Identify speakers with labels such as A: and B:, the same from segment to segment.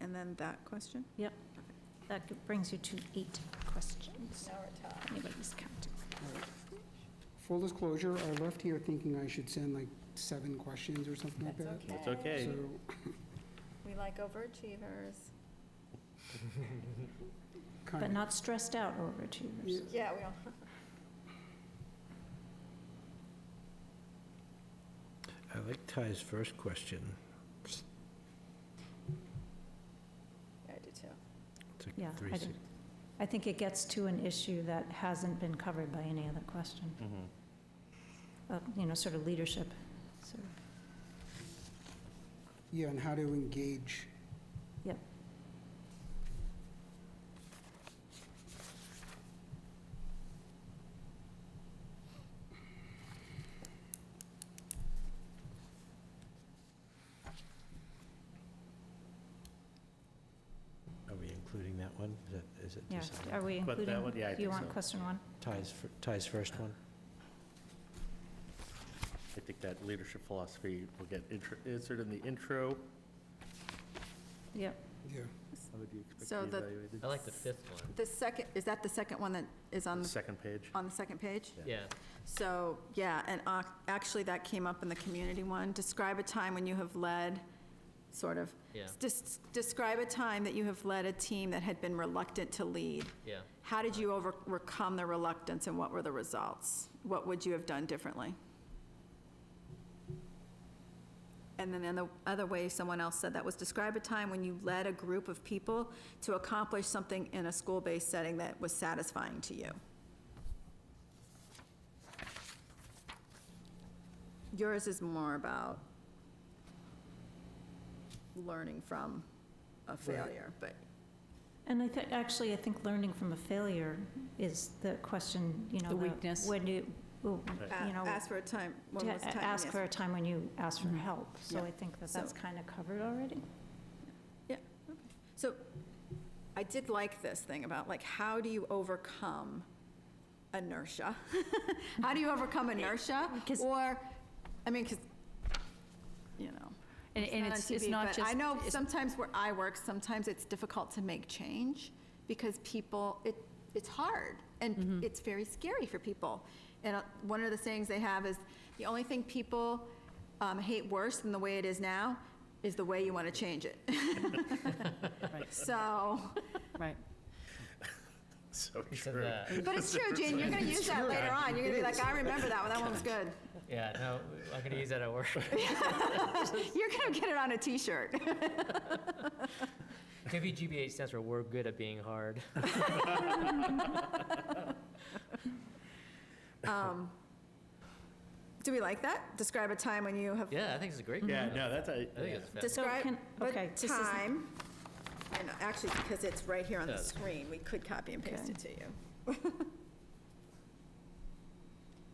A: then that question?
B: That g- brings you to eight questions. Anybody's counting.
C: Full disclosure, I left here thinking I should send like seven questions or something like that.
D: It's okay.
C: So
D: We like overachievers.
C: kind
B: But
C: of-
B: not stressed out overachievers.
D: Yeah, we all.
E: I like Ty's first question.
D: Yeah, I do too.
E: It's like
B: Yeah,
E: three
B: I
E: si-
B: do. I think it gets to an issue that hasn't been covered by any other question,
F: Mm-hmm.
B: of, you know, sort of leadership. sort of.
C: Yeah, and how to engage.
B: Yep.
E: Are we including that one? Is that, is it
B: Yeah,
E: decided?
B: are we
D: But that
B: including?
D: one- yeah, I
B: Do you
D: think
B: want
D: so.
B: question one?
E: Ty's, fir- Ty's first one?
F: I think that leadership philosophy will get intro- inserted in the intro.
B: Yep,
C: Yeah.
F: How would you expect
D: So
F: to be
D: the-
F: evaluated?
G: I like the fifth one.
D: The second, is that the second one that is on, the
F: Second page.
D: on the second page?
G: Yeah,
D: So, yeah, and ac- actually that came up in the community one. Describe a time when you have led, sort of.
G: yeah,
D: Des- Describe a time that you have led a team that had been reluctant to lead.
G: yeah.
D: How did you overcome the reluctance and what were the results? What would you have done differently? And then the other way someone else said that was describe a time when you led a group of people to accomplish something in a school-based setting that was satisfying to you. Yours is more about learning from a failure, but
B: and I think, actually, I think learning from a failure is the question, you know. The weakness. When you, well, you know.
D: Uh, ask for a time, when
B: to
D: was the time? you
B: ask
D: asked
B: for a time when you ask for help. So
D: Yeah.
B: I think that that's
D: So-
B: kind of covered already.
D: So I did like this thing about like, how do you overcome inertia? how do you overcome inertia?
H: 'cause-
D: Or, I mean, because, you know.
H: And, and
D: on
H: it's, it's
D: TV,
H: not
D: but
H: just.
D: I know
H: it's-
D: sometimes where I work, sometimes it's difficult to make change because people, it, it's hard
H: Mm-hmm.
D: and it's very scary for people. And uh, one of the sayings they have is, the only thing people um, hate worse than the way it is now is the way you want to change it. So,
H: Right.
F: So
G: He said
F: true.
G: that.
D: but it's true, Gene, you're going to use that later on. You're going to be like, I remember that one, that one was good.
G: Yeah, no, I'm gonna use that at work.
D: You're going to get it on a T-shirt.
G: WGBH stands for we're good at being hard.
D: Um, Do we like that? Describe a time when you have
G: Yeah, I think it's a great.
F: Yeah,
G: one.
F: no, that's, a-
G: I think
F: yeah.
G: it's fifth.
B: So
D: Describe
B: can-
D: what
B: okay, this is-
D: time, and actually, because it's right here on the
G: Yeah.
D: screen, we could copy and paste
B: Okay.
D: it to you.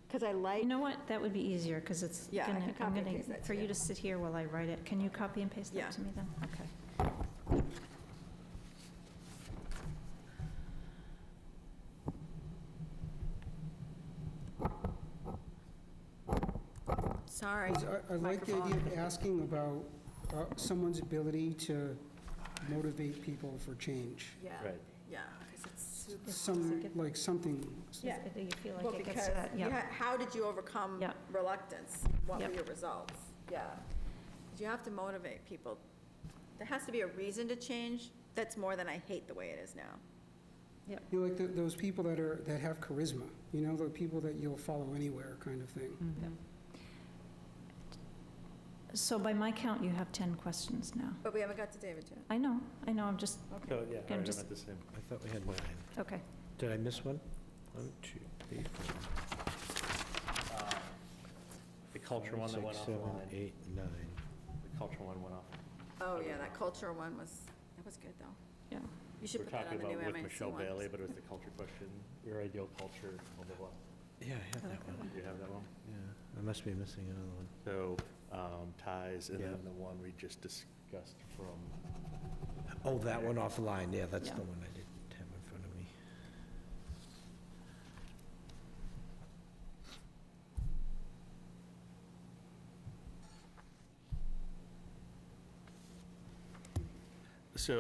D: Because I like,
B: You know what? That would be easier because it's
D: Yeah, I
B: gonna,
D: can
B: I'm
D: copy and
B: gonna,
D: paste that
B: for
D: too.
B: you to sit here while I write it. Can you copy and paste
D: Yeah.
B: that to me then? Okay.
D: sorry.
C: I I like the idea of
D: microphone.
C: asking about uh, someone's ability to motivate people for change.
D: Yeah,
F: Right.
D: yeah, because it's super.
C: Some, like something,
D: Yeah.
B: Do you feel
D: Well,
B: like it
D: because,
B: gets to that?
D: you
B: Yeah.
D: ha- how did you overcome
B: Yeah.
D: reluctance? What were
B: Yeah.
D: your results? Yeah. 'Cause you have to motivate people. There has to be a reason to change that's more than I hate the way it is now.
C: you know, like th- those people that are, that have charisma, you know, the people that you'll follow anywhere kind of thing.
B: Mm-hmm. So by my count, you have 10 questions now.
D: But we haven't got to David yet.
B: I know, I know, I'm just,
F: So, yeah, all right,
B: I'm
F: I'm
B: just-
F: at the same.
E: I thought we had nine.
B: okay.
E: Did I miss one? One, two, three, four,
F: The culture one
E: five,
F: that went
E: six, seven,
F: offline.
E: eight, nine.
F: The culture one went off.
D: Oh, yeah, that culture one was, that was good, though.
B: Yeah.
D: You
F: We're
D: should put that
F: talking
D: on the new
F: about with
D: MIC
F: Michelle
D: one.
F: Bailey, but it was the culture question, your ideal culture, blah, blah,
E: Yeah,
B: Oh,
E: I had that
F: blah.
E: one.
F: Do you have that one?
E: Yeah, I must be missing another one.
F: So um, ties, and
E: Yeah.
F: then the one we just discussed from
E: Oh, that one offline, yeah, that's
B: Yeah.
E: the one I